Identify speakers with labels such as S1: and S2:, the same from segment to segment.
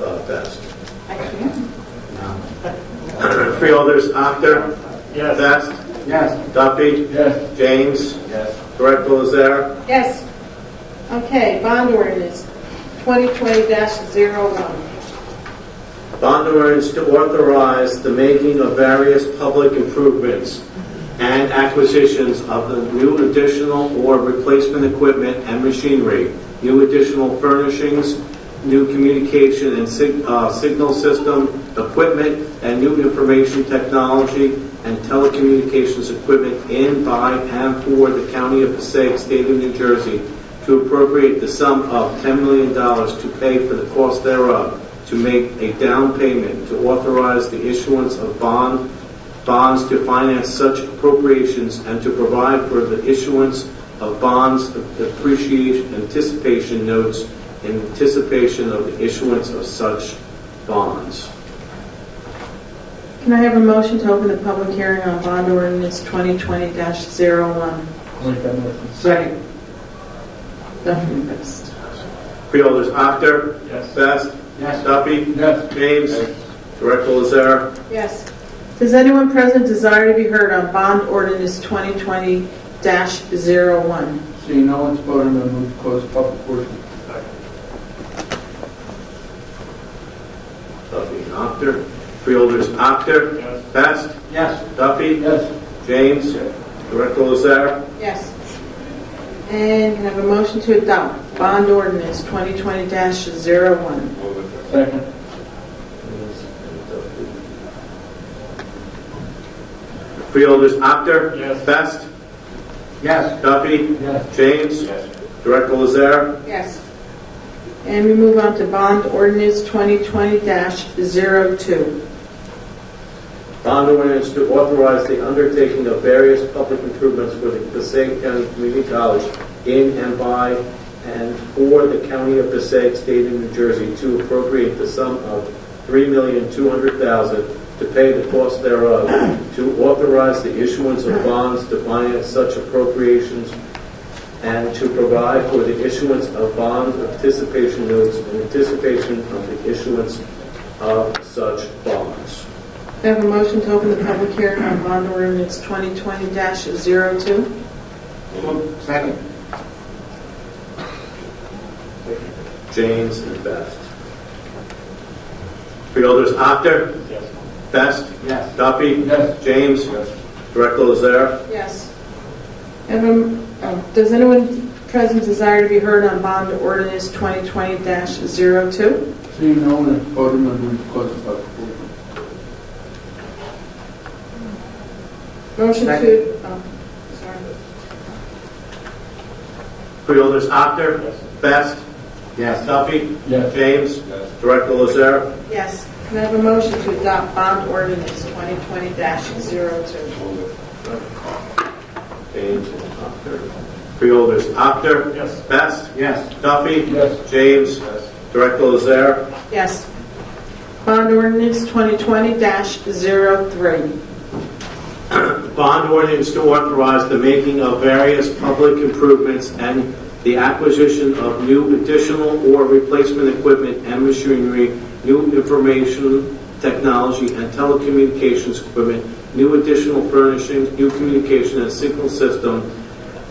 S1: uh, Best.
S2: I can't.
S1: Three others, Actor,
S3: Yes.
S1: Best,
S3: Yes.
S1: Duffy,
S3: Yes.
S1: James,
S3: Yes.
S1: Director Lazare,
S2: Yes. Okay, bond ordinance 2020-01.
S1: bond ordinance to authorize the making of various public improvements and acquisitions of the new additional or replacement equipment and machinery, new additional furnishings, new communication and sig- uh, signal system equipment, and new information technology and telecommunications equipment in, by, and for the county of Passaic, state of New Jersey, to appropriate the sum of $10 million to pay for the cost thereof, to make a down payment, to authorize the issuance of bond, bonds to finance such appropriations, and to provide for the issuance of bonds of appreciation anticipation notes in anticipation of the issuance of such bonds.
S2: Can I have a motion to open the public hearing on bond ordinance 2020-01?
S3: Make that motion. Second.
S2: Duffy Best.
S1: Freeholders, Actor,
S3: Yes.
S1: Best,
S3: Yes.
S1: Duffy,
S3: Yes.
S1: James, Director Lazare.
S2: Yes. Does anyone present desire to be heard on bond ordinance 2020-01?
S3: Seeing no one's voting, I move to close public portion.
S1: Duffy, Actor. Freeholders, Actor,
S3: Yes.
S1: Best,
S3: Yes.
S1: Duffy,
S3: Yes.
S1: James, Director Lazare.
S2: Yes. And can I have a motion to adopt bond ordinance 2020-01?
S3: Second.
S1: Freeholders, Actor,
S3: Yes.
S1: Best,
S3: Yes.
S1: Duffy,
S3: Yes.
S1: James, Director Lazare.
S2: Yes. And we move on to bond ordinance 2020-02.
S1: Bond ordinance to authorize the undertaking of various public improvements for the Passaic County Community College in and by and for the county of Passaic, state of New Jersey, to appropriate the sum of $3,200,000 to pay the cost thereof, to authorize the issuance of bonds to finance such appropriations, and to provide for the issuance of bond anticipation notes in anticipation of the issuance of such bonds.
S2: Do I have a motion to open the public hearing on bond ordinance 2020-02?
S3: Second.
S1: James and Best. Freeholders, Actor.
S3: Yes.
S1: Best.
S3: Yes.
S1: Duffy.
S3: Yes.
S1: James. Director Lazare.
S2: Yes. Have a- oh, Does anyone present desire to be heard on bond ordinance 2020-02?
S3: Seeing no one is voting, I move to close public portion.
S2: Motion to, oh, sorry.
S1: Freeholders, Actor.
S3: Yes.
S1: Best. Duffy.
S3: Yes.
S1: James. Director Lazare.
S2: Yes. Can I have a motion to adopt bond ordinance 2020-02?
S1: James and Actor. Freeholders, Actor.
S3: Yes.
S1: Best.
S3: Yes.
S1: Duffy.
S3: Yes.
S1: James. Director Lazare.
S2: Yes. Bond ordinance 2020-03.
S1: Bond ordinance to authorize the making of various public improvements and the acquisition of new additional or replacement equipment and machinery, new information technology and telecommunications equipment, new additional furnishings, new communication and signal system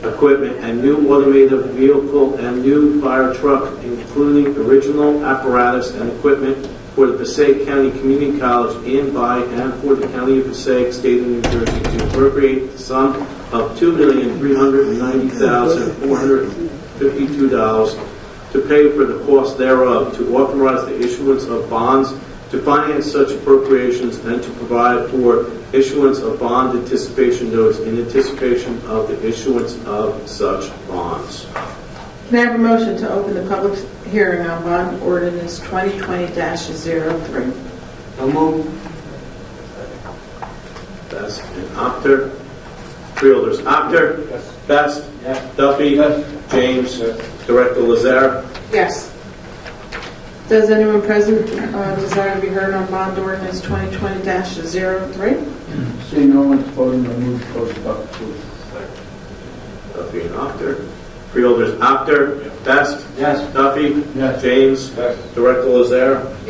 S1: equipment, and new automated vehicle and new fire truck, including original apparatus and equipment for the Passaic County Community College in, by, and for the County of Passaic, State of New Jersey, to appropriate the sum of $2,390,452 to pay for the cost thereof, to authorize the issuance of bonds to finance such appropriations and to provide for issuance of bond anticipation notes in anticipation of the issuance of such bonds.
S2: Can I have a motion to open the public hearing on bond ordinance 2020-03?
S3: So move.
S1: Best and Actor. Freeholders, Actor.
S3: Yes.
S1: Best.
S3: Yes.
S1: Duffy.
S3: Yes.
S1: James. Director Lazare.
S2: Yes. Does anyone present uh, desire to be heard on bond ordinance 2020-03?
S3: Seeing no one's voting, I move to close public portion.
S1: Duffy and Actor. Freeholders, Actor. Best.
S3: Yes.
S1: Duffy.
S3: Yes.
S1: James. Director Lazare.